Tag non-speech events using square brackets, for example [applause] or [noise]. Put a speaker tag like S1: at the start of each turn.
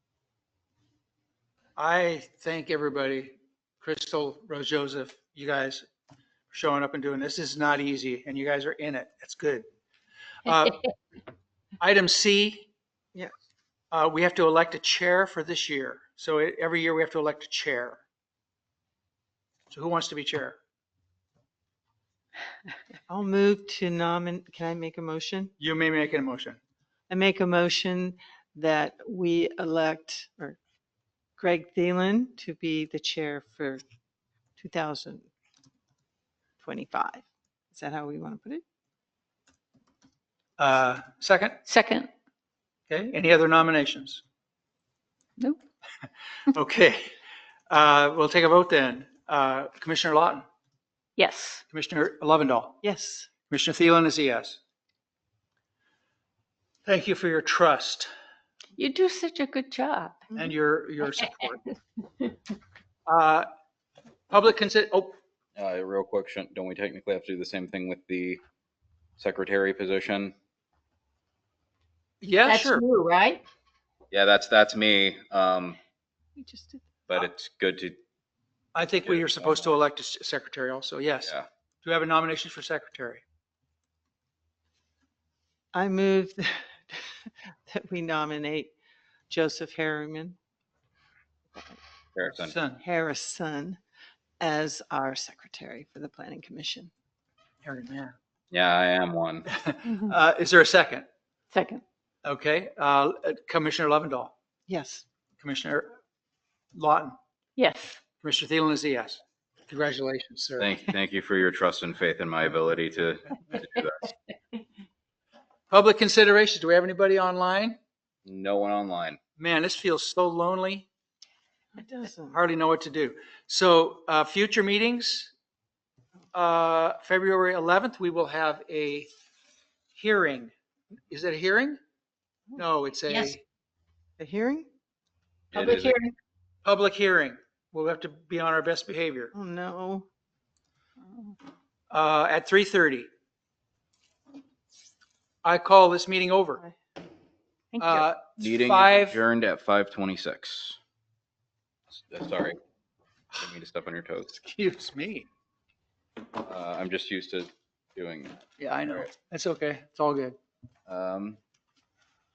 S1: I thank everybody, Crystal, Rose Joseph, you guys for showing up and doing this. This is not easy and you guys are in it. That's good. Uh, Item C.
S2: Yeah.
S1: Uh, we have to elect a chair for this year. So e- every year we have to elect a chair. So who wants to be chair?
S2: I'll move to nomin, can I make a motion?
S1: You may make an motion.
S2: I make a motion that we elect or Greg Thielen to be the chair for 2025. Is that how we want to put it?
S1: Uh, second?
S3: Second,
S1: Okay, any other nominations?
S3: Nope.
S1: [laughs] Okay, uh, we'll take a vote then. Uh, Commissioner Lawton,
S3: yes.
S1: Commissioner Lovendall,
S2: Yes.
S1: Commissioner Thielen is a yes. Thank you for your trust
S3: You do such a good job.
S1: and your, your support. Uh, Public consent, oh,
S4: Uh, real quick, shouldn't- don't we technically have to do the same thing with the secretary position?
S1: yeah,
S5: That's
S1: Oh, sure.
S5: you, right?
S4: Yeah, that's, that's me. Um,
S2: We just did.
S4: but it's good to,
S1: I think we are supposed to elect a s- secretary also, yes.
S4: yeah.
S1: Do we have a nomination for secretary?
S2: I move [laughs] that we nominate Joseph Harriman,
S4: Harrison.
S1: Son,
S2: Harrison as our secretary for the planning commission.
S1: Harry, yeah.
S4: Yeah, I am one.
S1: Uh, Is there a second?
S3: Second,
S1: Okay, uh, Commissioner Lovendall.
S2: Yes.
S1: Commissioner Lawton,
S3: yes.
S1: Commissioner Thielen is a yes. Congratulations, sir.
S4: Thank, thank you for your trust and faith in my ability to, to do that.
S1: Public considerations, do we have anybody online?
S4: No one online.
S1: Man, this feels so lonely,
S2: It doesn't.
S1: hardly know what to do. So uh, future meetings, uh, February 11th, we will have a hearing. Is it a hearing? No, it's
S5: Yes.
S1: a
S2: The hearing?
S4: It
S5: Public
S4: is-
S5: hearing.
S1: public hearing. We'll have to be on our best behavior
S2: Oh, no.
S1: uh, at 3:30. I call this meeting over.
S3: Thank you.
S1: Uh,
S4: Meeting
S1: Five-
S4: is adjourned at 5:26. S- Sorry. Didn't mean to step on your toes.
S1: Excuse me.
S4: Uh, I'm just used to doing.
S1: Yeah, I know.
S4: Right.
S1: That's okay. It's all good.
S4: Um,